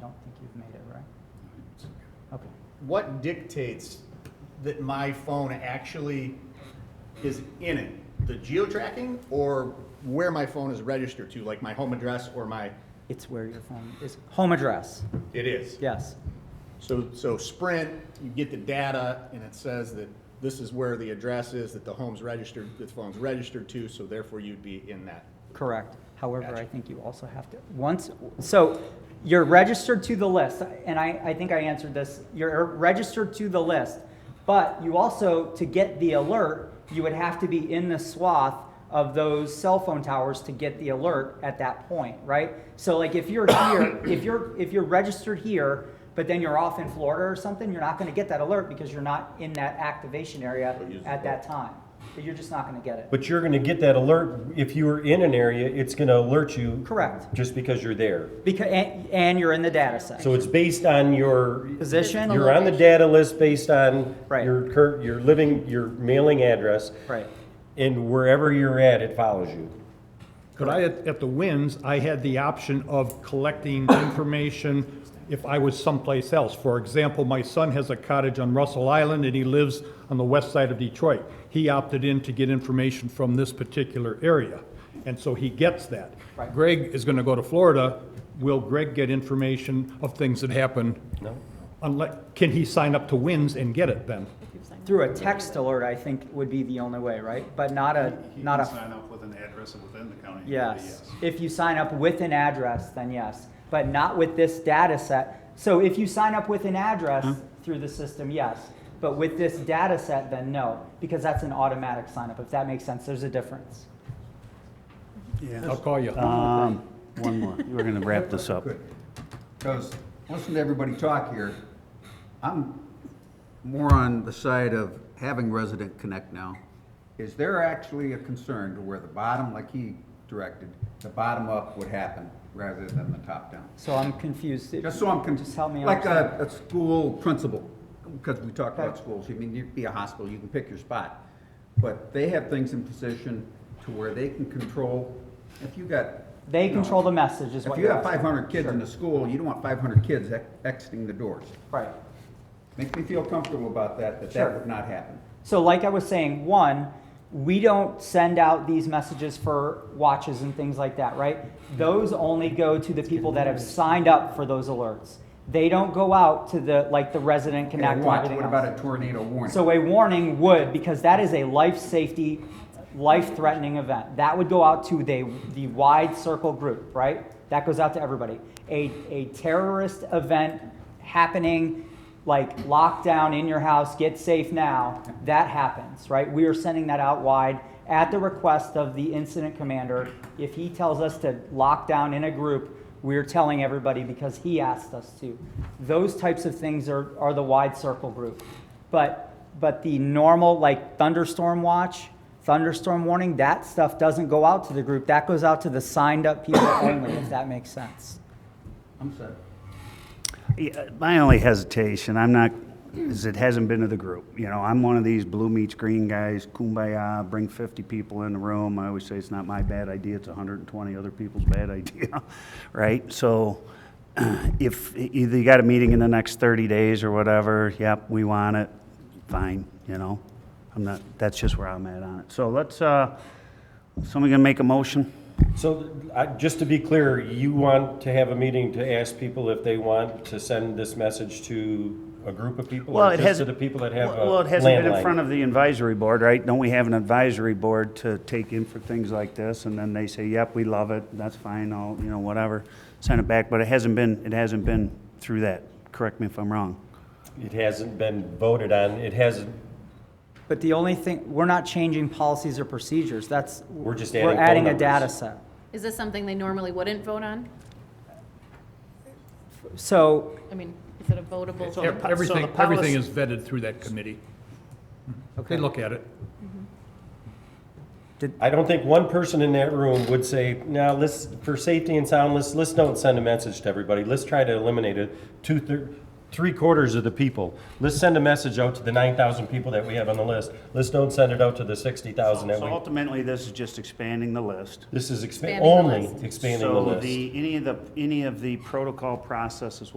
don't think you've made it, right? Okay. What dictates that my phone actually is in it? The geo-tracking or where my phone is registered to, like my home address or my, It's where your phone is, home address, it is? yes. So, so Sprint, you get the data and it says that this is where the address is, that the home's registered, the phone's registered to, so therefore you'd be in that. Correct. However, I Gotcha. think you also have to, once, so you're registered to the list, and I, I think I answered this. You're registered to the list, but you also, to get the alert, you would have to be in the swath of those cell phone towers to get the alert at that point, right? So like if you're here, if you're, if you're registered here, but then you're off in Florida or something, you're not gonna get that alert because you're not in that activation area at that time. You're just not gonna get it. But you're gonna get that alert, if you were in an area, it's gonna alert you. Correct. Just because you're there. Because, and, and you're in the data set. So it's based on your, Position? you're on the data list based on Right. your current, your living, your mailing address. Right. And wherever you're at, it follows you. But I, had- at the Winds, I had the option of collecting information if I was someplace else. For example, my son has a cottage on Russell Island and he lives on the west side of Detroit. He opted in to get information from this particular area, and so he gets that. Right. Greg is gonna go to Florida. Will Greg get information of things that happen? No. Unless, can he sign up to Winds and get it then? Through a text alert, I think would be the only way, right? But not a, He not can a, sign up with an address within the county. yes. If you sign up with an address, then yes, but not with this data set. So if you sign up with an address through the system, yes, but with this data set, then no, because that's an automatic sign up, if that makes sense, there's a difference. I'll call you. Um, one more. We're gonna wrap this up. Because, listen to everybody talk here. I'm more on the side of having Resident Connect now. Is there actually a concern to where the bottom, like he directed, the bottom up would happen rather than the top down? So I'm confused. Just so I'm, con- Just help me like understand. a, a school principal, because we talked about Okay. schools, I mean, you'd be a hospital, you can pick your spot. But they have things in position to where they can control, if you got. They you know, control the message is If what you you're have five hundred kids in the school, you don't want five hundred kids ex- exiting the doors. Right. Makes me feel comfortable about that, that Sure. that would not happen. So, like I was saying, one, we don't send out these messages for watches and things like that, right? Those only go to the people that have signed up for those alerts. They don't go out to the like the resident Okay, connect. and watch, everything what else. about a tornado warning? So a warning would, because that is a life safety, life-threatening event. That would go out to the, the wide circle group, right? That goes out to everybody. A, a terrorist event happening, like lockdown in your house, get safe now, that happens, right? We are sending that out wide at the request of the incident commander. If he tells us to lock down in a group, we're telling everybody because he asked us to. Those types of things are, are the wide circle group. But, but the normal, like thunderstorm watch, thunderstorm warning, that stuff doesn't go out to the group. That goes out to the signed up people only, if that makes sense. I'm sorry. Yeah, My only hesitation, I'm not, is it hasn't been to the group. You know, I'm one of these blue meets green guys, kumbaya, bring 50 people in the room. I always say it's not my bad idea, it's 120 other people's bad idea, right? So if either you got a meeting in the next 30 days or whatever, yep, we want it, fine, you know? I'm not, that's just where I'm at on it. So let's, uh, somebody gonna make a motion? So, I, just to be clear, you want to have a meeting to ask people if they want to send this message to a group of people? or Well, it just has. To the people that have a landline? Well, it hasn't been in front of the advisory board, right? Don't we have an advisory board to take in for things like this? And then they say, yep, we love it, that's fine, I'll, you know, whatever, send it back. But it hasn't been, it hasn't been through that. Correct me if I'm wrong. It hasn't been voted on, it hasn't, But the only thing, we're not changing policies or procedures. That's, We're just We're adding phone adding a numbers. data set. Is this something they normally wouldn't vote on? So I mean, is it a votable? Ev- Everything, everything is vetted through that committee. They look at it. I don't think one person in that room would say, now, let's, for safety and sound, let's, let's don't send a message to everybody. Let's try to eliminate it. Two, thir- three quarters of the people. Let's send a message out to the nine thousand people that we have on the list. Let's don't send it out to the sixty thousand that So we, ultimately, this is just expanding the list. this is expa- Expanding the only list. expanding the list. So the, any of the, any of the protocol processes will